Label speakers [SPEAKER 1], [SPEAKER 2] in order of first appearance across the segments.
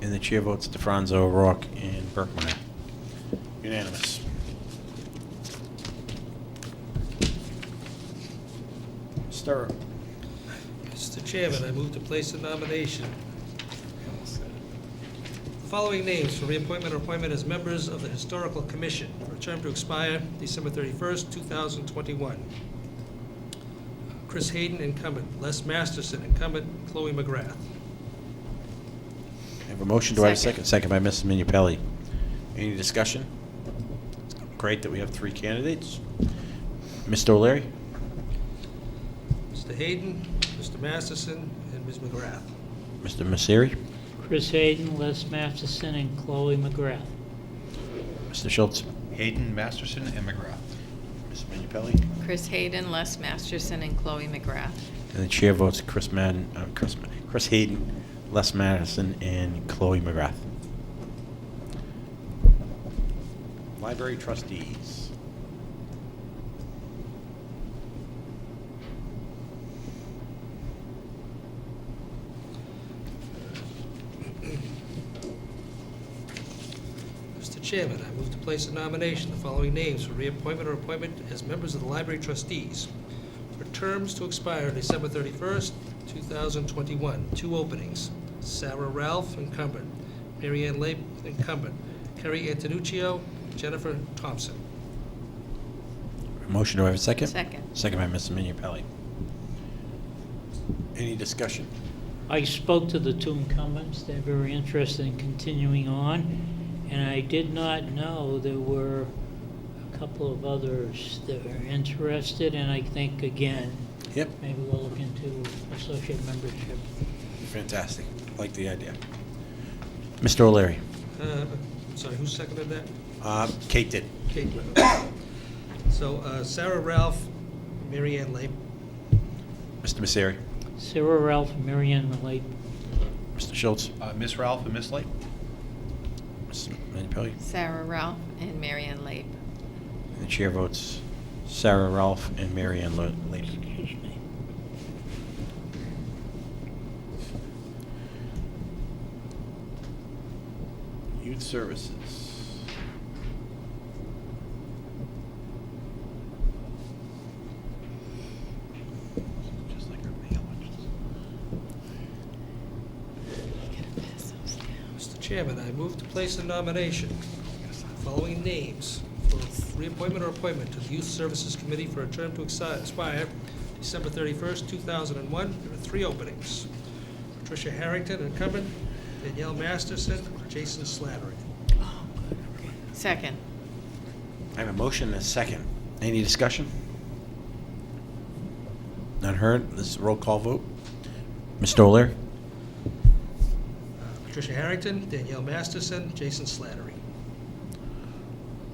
[SPEAKER 1] And the chair votes DeFranco, O'Rourke, and Burkmeyer. Unanimous. Stir.
[SPEAKER 2] Mr. Chairman, I move to place a nomination. The Following names for reappointment or appointment as members of the Historical Commission for a term to expire December 31st, 2021. Chris Hayden, incumbent. Les Masterson, incumbent. Chloe McGrath.
[SPEAKER 1] I have a motion, do I have a second?
[SPEAKER 3] Second.
[SPEAKER 1] Second by Mrs. Minipelli. Any discussion? Great that we have three candidates. Mr. O'Leary?
[SPEAKER 2] Mr. Hayden, Mr. Masterson, and Ms. McGrath.
[SPEAKER 1] Mr. Messeri?
[SPEAKER 4] Chris Hayden, Les Masterson, and Chloe McGrath.
[SPEAKER 1] Mr. Schultz?
[SPEAKER 5] Hayden, Masterson, and McGrath.
[SPEAKER 1] Mrs. Minipelli?
[SPEAKER 3] Chris Hayden, Les Masterson, and Chloe McGrath.
[SPEAKER 1] And the chair votes Chris Madden, uh, Chris, Ma- Chris Hayden, Les Madison, and Chloe McGrath. Library trustees.
[SPEAKER 2] Mr. Chairman, I move to place a nomination, the following names for reappointment or appointment as members of the library trustees for terms to expire December 31st, 2021. Two openings, Sarah Ralph, incumbent, Mary Ann Lape, incumbent, Kerry Antonuccio, Jennifer Thompson.
[SPEAKER 1] Motion, do I have a second?
[SPEAKER 3] Second.
[SPEAKER 1] Second by Mrs. Minipelli. Any discussion?
[SPEAKER 4] I spoke to the two incumbents, they're very interested in continuing on, and I did not know there were a couple of others that were interested, and I think, again,
[SPEAKER 1] Yep.
[SPEAKER 4] maybe we'll look into associate membership.
[SPEAKER 1] Fantastic. Like the idea. Mr. O'Leary.
[SPEAKER 2] Uh, Sorry, who seconded that?
[SPEAKER 1] Uh, Kate did.
[SPEAKER 2] Kate. Webber. So uh, Sarah Ralph, Mary Ann Lape,
[SPEAKER 1] Mr. Messeri.
[SPEAKER 4] Sarah Ralph, Marianne Malate,
[SPEAKER 1] Mr. Schultz.
[SPEAKER 5] Uh, Miss Ralph and Miss Light?
[SPEAKER 1] Mrs. Minipelli.
[SPEAKER 3] Sarah Ralph and Mary Ann Lape.
[SPEAKER 1] The chair votes Sarah Ralph and Mary Ann Lo- Lady. Youth Services.
[SPEAKER 5] Just like her male ones.
[SPEAKER 2] Mr. Chairman, I move to place a nomination, of the following names for reappointment or appointment to the Youth Services Committee for a term to exi- expire December 31st, 2001. There are three openings. Patricia Harrington, incumbent, Danielle Masterson, Jason Slattery.
[SPEAKER 3] Second.
[SPEAKER 1] I have a motion and a second. Any discussion? None heard. This is a roll call vote. Mr. O'Leary?
[SPEAKER 2] Uh, Patricia Harrington, Danielle Masterson, Jason Slattery.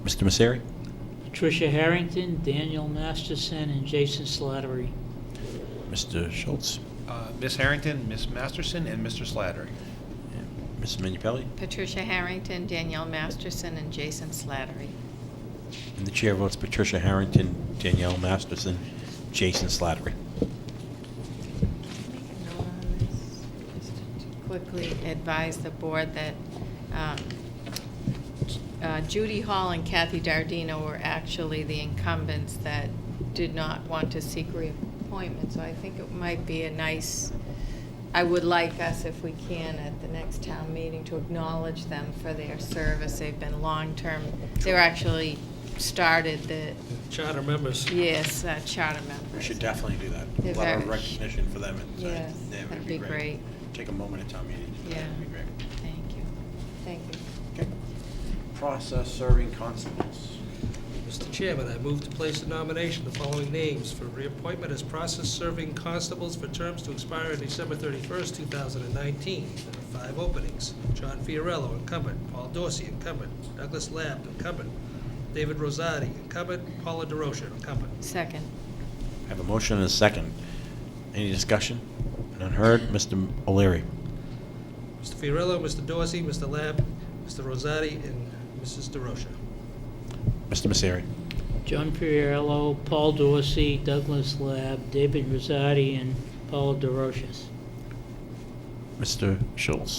[SPEAKER 1] Mr. Misery?
[SPEAKER 4] Patricia Harrington, Daniel Masterson, and Jason Slattery.
[SPEAKER 1] Mr. Schultz?
[SPEAKER 5] Uh, Miss Harrington, Miss Masterson, and Mr. Slattery.
[SPEAKER 1] and Mrs. Minipelli?
[SPEAKER 3] Patricia Harrington, Danielle Masterson, and Jason Slattery.
[SPEAKER 1] And the chair votes Patricia Harrington, Danielle Masterson, Jason Slattery.
[SPEAKER 3] Make a note on this, just to Quickly advise the board that um, uh, Judy Hall and Kathy Dardino were actually the incumbents that did not want to seek reappointment, so I think it might be a nice, I would like us, if we can, at the next town meeting, to acknowledge them for their service. They've been long-term, they were actually started the,
[SPEAKER 2] Charter members.
[SPEAKER 3] yes, uh, charter members.
[SPEAKER 1] We should definitely do
[SPEAKER 3] They're
[SPEAKER 1] that. A lot of
[SPEAKER 3] very-
[SPEAKER 1] recognition for them. and, uh,
[SPEAKER 3] Yes,
[SPEAKER 1] that would
[SPEAKER 3] that'd be great.
[SPEAKER 1] Take a moment at town meeting. to do that.
[SPEAKER 3] Yeah.
[SPEAKER 1] That'd be great.
[SPEAKER 3] Thank you. Thank you.
[SPEAKER 1] Okay. Process serving constables.
[SPEAKER 2] Mr. Chairman, I move to place a nomination of the following names for reappointment as process-serving constables for terms to expire on December 31st, 2019. There are five openings. John Fiorello, incumbent. Paul Dorsey, incumbent. Douglas Lab, incumbent. David Rosati, incumbent. Paula DeRosa, incumbent.
[SPEAKER 3] Second.
[SPEAKER 1] I have a motion and a second. Any discussion? None heard. Mr. O'Leary.
[SPEAKER 2] Mr. Fiorello, Mr. Dorsey, Mr. Lab, Mr. Rosati, and Mrs. DeRosa.
[SPEAKER 1] Mr. Misery.
[SPEAKER 4] John Pierlo, Paul Dorsey, Douglas Lab, David Rosati, and Paul DeRoches.
[SPEAKER 1] Mr. Schultz.